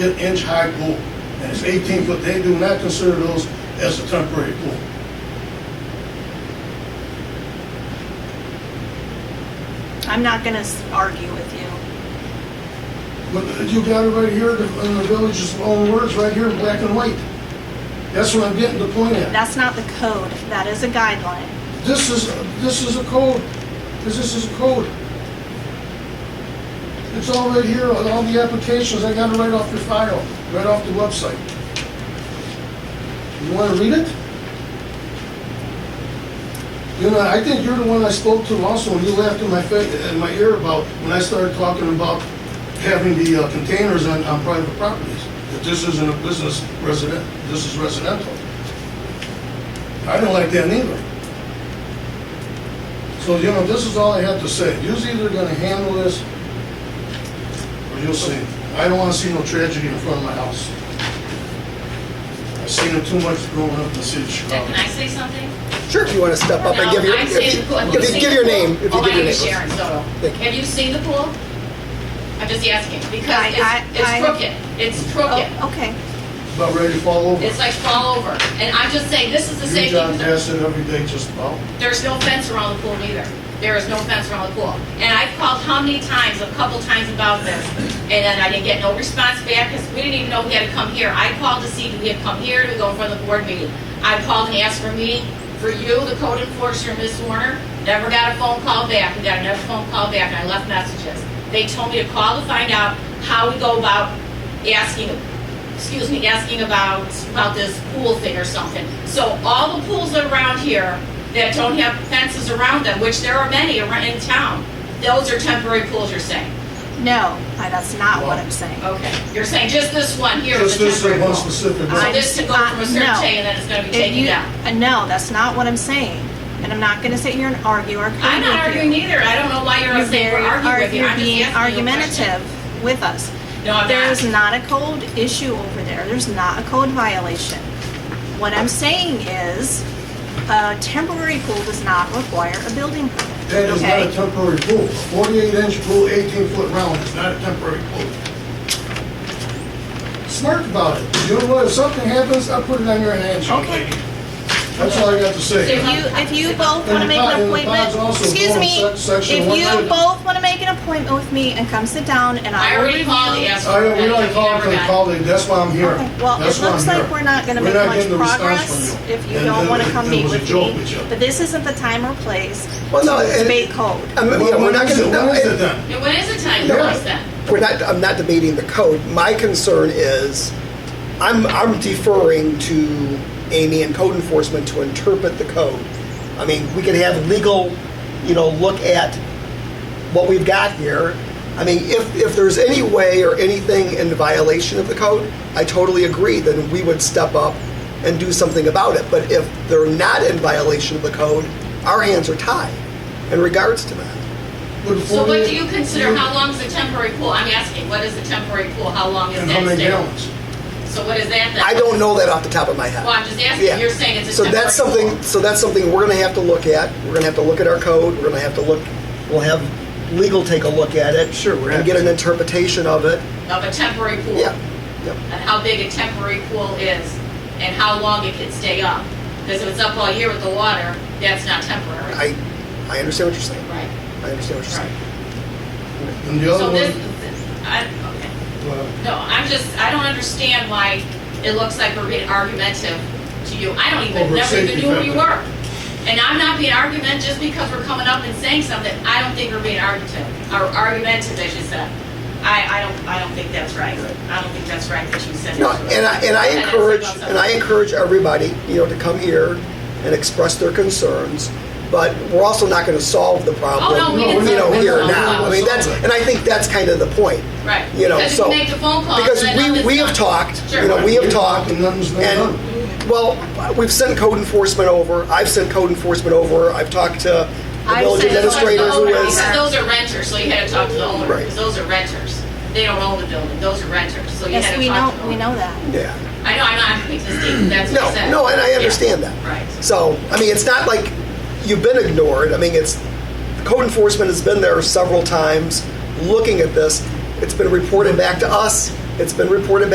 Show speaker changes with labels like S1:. S1: inch high pool, and it's eighteen foot, they do not consider those as a temporary pool.
S2: I'm not gonna s- argue with you.
S1: But you got it right here, the, in the village's own words, right here in black and white. That's what I'm getting the point at.
S2: That's not the code, that is a guideline.
S1: This is, this is a code, this this is a code. It's all right here, on all the applications, I got it right off the file, right off the website. You wanna read it? You know, I think you're the one I spoke to also, and you laughed in my face, in my ear about, when I started talking about having the uh, containers on, on private properties. That this isn't a business resident, this is residential. I don't like that neither. So, you know, this is all I have to say. You're either gonna handle this, or you'll see. I don't wanna see no tragedy in front of my house. I've seen it too much growing up in the city of Chicago.
S3: Can I say something?
S4: Sure, if you want to step up and give your,
S3: No, I
S4: if
S3: say
S4: Oh, you,
S3: the pool. Have
S4: give-
S3: seen
S4: give
S3: the
S4: your
S3: pool?
S4: name, if you
S3: Oh,
S4: give
S3: my name
S4: your
S3: is
S4: name.
S3: Sharon Soto.
S4: Thank you.
S3: Have you seen the pool? I'm just asking,
S2: I-
S3: because
S2: I-
S3: it's, it's
S2: I-
S3: crooked, it's crooked,
S2: Oh, okay.
S1: About ready to fall over.
S3: it's like fall over, and I'm just saying, this is the
S1: Your
S3: safety.
S1: job
S3: concern.
S1: does it every day just about.
S3: There's no fence around the pool either. There is no fence around the pool. And I've called how many times, a couple times about this, and then I didn't get no response back, because we didn't even know he had to come here. I called to see if he had come here to go for the board meeting. I called and asked for a meeting for you, the code enforcer, Ms. Warner, never got a phone call back, we got another phone call back, and I left messages. They told me to call to find out how we go about asking excuse me, asking about, about this pool thing or something. So all the pools around here that don't have fences around them, which there are many around in town, those are temporary pools, you're saying?
S2: No, I- that's not what I'm saying.
S3: Okay. Oh, You're saying just this one here is
S1: Just
S3: a
S1: this
S3: temporary
S1: is one
S3: pool?
S1: specific
S3: So
S1: one.
S3: this to go from
S2: Uh,
S3: a certain
S2: no.
S3: day and then it's gonna be
S2: If
S3: taken
S2: you,
S3: down?
S2: uh, no, that's not what I'm saying. And I'm not gonna sit here and argue or argue
S3: I'm not arguing either, I don't know why you're
S2: You're
S3: upset
S2: very,
S3: for arguing with me,
S2: you're
S3: I'm just
S2: being
S3: asking you a question.
S2: argumentative with us.
S3: No, I'm
S2: There is not
S3: not.
S2: a code issue over there. There's not a code violation. What I'm saying is, a temporary pool does not require a building permit.
S1: That is not a
S2: okay?
S1: temporary pool. A Forty-eight inch pool, eighteen foot round is not a temporary pool. Smart about it. You know what? If something happens, I'll put it on your hands.
S2: Okay.
S1: That's all I got to
S2: If
S1: say.
S2: you, if you both want to
S1: And
S2: make
S1: the
S2: an
S1: pod- and the pod's
S2: appointment,
S1: also
S2: excuse
S1: going
S2: me,
S1: sec- section
S2: if you
S1: 190.
S2: both want to make an appointment with me and come sit down and I
S3: I
S2: will
S3: already called the
S2: review.
S3: ask.
S1: I, we don't call it, they call it, that's why I'm here.
S2: Okay, well,
S1: That's
S2: it
S1: why I'm
S2: looks like
S1: here.
S2: we're not gonna
S1: We're
S2: make
S1: not
S2: much
S1: getting the response from
S2: progress
S1: you.
S2: if you
S1: And- uh,
S2: don't
S1: and
S2: want to
S1: it-
S2: come meet with
S1: It was a joke with
S2: me.
S1: you.
S2: But this isn't the time or place
S4: Well, no,
S2: to
S4: and-
S2: debate code.
S4: I'm, you know,
S1: Well,
S4: Um, we're
S1: when
S4: not
S1: is
S4: gonna,
S1: it- when is it
S4: no,
S1: then?
S3: Yeah, When is the time,
S4: Yeah.
S3: Doris, then?
S4: we're not, I'm not debating the code. My concern is, I'm, I'm deferring to Amy and code enforcement to interpret the code. I mean, we could have legal, you know, look at what we've got here. I mean, if, if there's any way or anything in violation of the code, I totally agree, then we would step up and do something about it. But if they're not in violation of the code, our hands are tied in regards to that.
S1: But the
S3: So what
S1: 48
S3: do you consider, how long is a temporary pool? I'm asking, what is a temporary pool, how long is that
S1: And how many
S3: stay?
S1: gallons?
S3: So what is that then?
S4: I don't know that off the top of my head.
S3: Well, I'm just
S4: Yeah.
S3: asking, you're saying it's a
S4: So
S3: temporary.
S4: that's something,
S3: pool.
S4: so that's something we're gonna have to look at. We're gonna have to look at our code, we're gonna have to look, we'll have legal take a look at it. Sure.
S1: we're
S4: And
S1: happy
S4: get an
S1: to.
S4: interpretation of it.
S3: Of a temporary pool.
S4: Yeah, yeah.
S3: And how big a temporary pool is and how long it can stay up. Because if it's up all year with the water, that's not temporary.
S4: I, I understand what you're saying.
S3: Right,
S4: I understand what you're saying.
S3: right.
S1: And the other
S3: So this,
S1: one,
S3: I, okay.
S1: well,
S3: No, I'm just, I don't understand why it looks like we're being argumentative to you. I don't even,
S1: Over
S3: never even
S1: safety
S3: knew who you
S1: factor.
S3: were. And I'm not being argumentative just because we're coming up and saying something. I don't think we're being argumentative, or argumentative, as you said. I, I don't, I don't think that's right. I don't think that's right that you said.
S4: No,
S3: that.
S4: and I, and I
S3: it's
S4: encourage,
S3: about
S4: and I encourage everybody, you know, to come here and express their concerns, but we're also not gonna solve the problem,
S3: Oh, no, we
S1: didn't
S4: you know,
S1: solve it.
S4: here
S1: No,
S4: and now.
S1: no,
S4: I mean,
S1: no.
S4: that's, and I think that's kind of the point.
S3: Right.
S4: you know,
S3: Because
S4: so-
S3: you make the phone calls.
S4: Because
S3: and
S4: we,
S3: nothing's
S4: we
S3: done.
S4: have talked,
S3: Sure.
S4: you know, we have
S1: We've
S4: talked,
S1: talked and nothing's been done.
S4: and, well, we've sent code enforcement over, I've sent code enforcement over, I've talked to the
S2: I've
S4: village
S2: sent
S3: Because
S2: code
S4: administrator who
S2: enforcement
S4: is,
S2: over.
S3: Those are renters, so you had to talk to the owner,
S4: Right.
S3: because those are renters. They don't own the building, those are renters, so you had
S2: Yes,
S3: to
S2: we
S3: talk
S2: know,
S3: to the owner.
S2: we know that.
S4: yeah.
S3: I know, I'm not existing, that's what I
S4: No,
S3: said.
S4: no, and I
S3: Yeah.
S4: understand that.
S3: Right.
S4: So, I mean, it's not like you've been ignored. I mean, it's, code enforcement has been there several times looking at this. It's been reported back to us. It's been reported